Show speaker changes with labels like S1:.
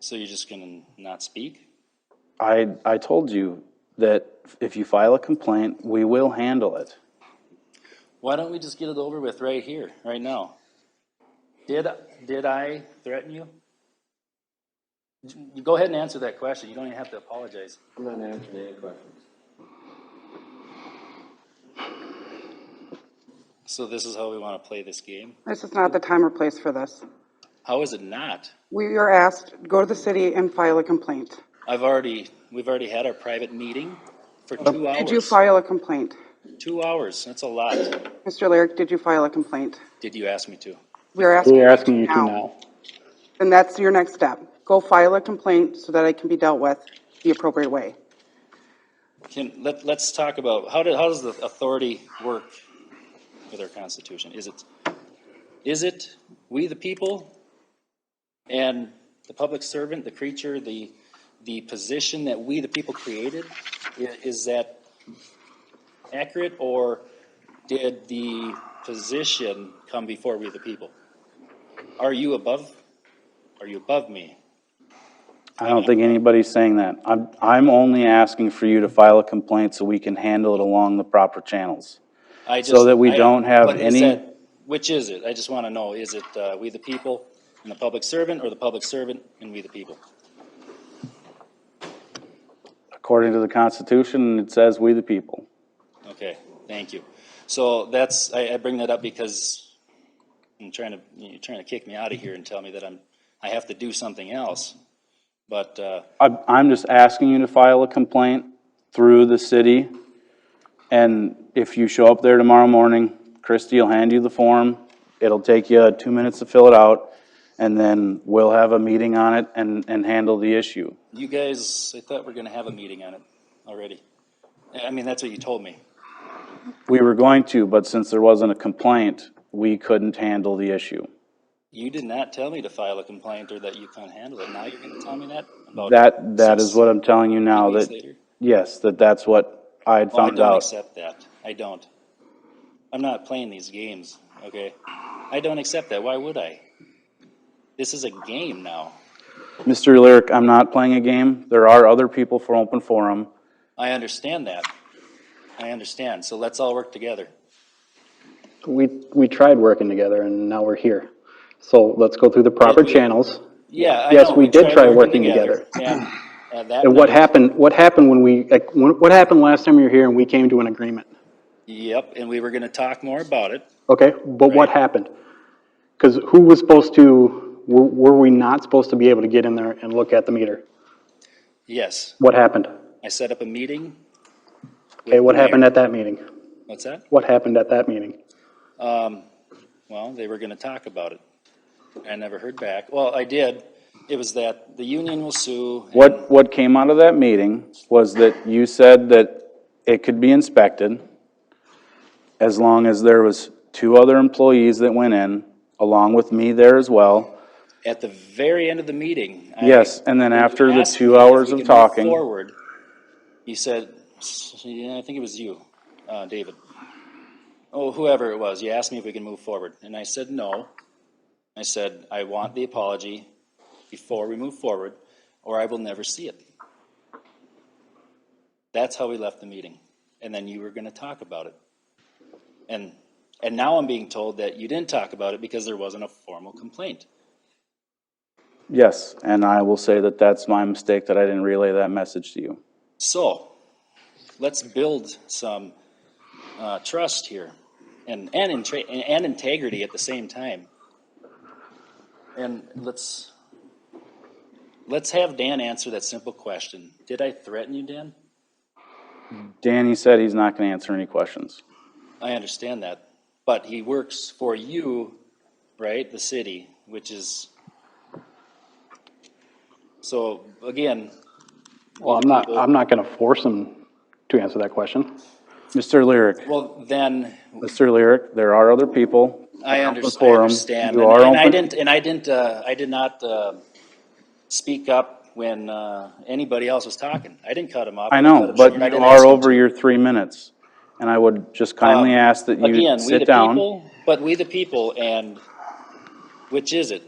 S1: So you're just gonna not speak?
S2: I, I told you that if you file a complaint, we will handle it.
S1: Why don't we just get it over with right here, right now? Did, did I threaten you? You Go ahead and answer that question. You don't even have to apologize.
S3: I'm not answering any questions.
S1: So this is how we want to play this game?
S4: This is not the time or place for this.
S1: How is it not?
S4: We are asked, go to the city and file a complaint.
S1: I've already, we've already had our private meeting for two
S4: Did you
S1: hours.
S4: file a complaint?
S1: Two hours, that's a lot.
S4: Mr. Lyric, did you file a complaint?
S1: Did you ask me to?
S4: We are asking.
S5: We are asking you to
S4: now.
S5: now.
S4: And that's your next step. Go file a complaint so that it can be dealt with the appropriate way.
S1: Can, let, let's talk about, how did, how does the authority work with our constitution? Is it, is it we the people and the public servant, the creature, the, the position that we the people created? I- Is that accurate or did the position come before we the people? Are you above, are you above me?
S2: I don't think anybody's saying that. I'm, I'm only asking for you to file a complaint so we can handle it along the proper channels.
S1: I
S2: So
S1: just-
S2: that we
S1: I-
S2: don't have
S1: what is
S2: any-
S1: that- Which is it? I just want to know, is it uh, we the people and the public servant, or the public servant and we the people?
S2: According to the Constitution, it says we the people.
S1: Okay, thank you. So that's, I, I bring that up because I'm trying to, you're trying to kick me out of here and tell me that I'm, I have to do something else. But, uh,
S2: I'm, I'm just asking you to file a complaint through the city. And if you show up there tomorrow morning, Christie will hand you the form. It'll take you two minutes to fill it out. And then we'll have a meeting on it and, and handle the issue.
S1: you guys, I thought we are going to have a meeting on it already. I I mean, that's what you told me.
S2: We were going to, but since there wasn't a complaint, we couldn't handle the issue.
S1: You did not tell me to file a complaint or that you couldn't handle it. Now you're going to tell me that? about
S2: That, that is
S1: six
S2: what I'm telling you now,
S1: weeks
S2: that,
S1: later?
S2: yes, that that's what I had
S1: Oh, I
S2: found
S1: don't
S2: out.
S1: accept that. I don't. I'm not playing these games, okay? I don't accept that. Why would I? This is a game now.
S2: Mr. Lyric, I'm not playing a game. There are other people for open forum.
S1: I understand that. I understand. So let's all work together.
S5: We, we tried working together and now we're here. So let's go through the proper channels.
S1: Yeah, I
S5: Yes,
S1: know.
S5: we did
S1: tried
S5: try working
S1: Yeah. And that
S5: And what
S1: night-
S5: happened, what happened when we, like, when- what happened last time you were here and we came to an agreement?
S1: Yep, and we were going to talk more about it.
S5: Okay, but what happened? Because who was supposed to, were, were we not supposed to be able to get in there and look at the meter?
S1: Yes,
S5: What happened?
S1: I set up a meeting.
S5: Okay, what happened at that meeting?
S1: What's that? Um,
S5: What happened at that meeting?
S1: Well, they were going to talk about it. I never heard back. Well, I did. It was that the union will sue. and-
S2: What, what came out of that meeting was that you said that it could be inspected as long as there was two other employees that went in, along with me there as well.
S1: At the very end of the meeting. I-
S2: Yes, and then
S1: when you
S2: after the
S1: asked
S2: two
S1: me if
S2: hours
S1: we
S2: of
S1: could move
S2: talking-
S1: Forward, you said, s- yeah, I think it was you, uh, David. Oh, whoever it was, you asked me if we can move forward, and I said no. I said, I want the apology before we move forward, or I will never see it. That's how we left the meeting, and then you were gonna talk about it. And, and now I'm being told that you didn't talk about it because there wasn't a formal complaint.
S2: Yes, and I will say that that's my mistake that I didn't relay that message to you.
S1: So, let's build some uh, trust here, and and, intra- and integrity at the same time. And let's let's have Dan answer that simple question. Did I threaten you, Dan?
S2: Danny said he's not going to answer any questions.
S1: I understand that, but he works for you, right? The city, which is so again.
S5: Well, I'm not, I'm not going to force him to answer that question.
S2: Mr. Lyric,
S1: Well, then
S2: Mr. Lyric, there are other people.
S1: I
S2: on the
S1: underst- I
S2: forum.
S1: understand,
S2: You
S1: and
S2: are
S1: and I
S2: open-
S1: didn't, and I didn't, uh, I did not uh, speak up when uh, anybody else was talking. I didn't cut him off.
S2: I
S1: cut
S2: know,
S1: him
S2: but
S1: short. I
S2: you
S1: didn't ask
S2: are
S1: him
S2: over
S1: to.
S2: your three minutes. And I would just kindly
S1: Um,
S2: ask that you
S1: Again, we the
S2: sit down.
S1: people, but we the people, and which is it?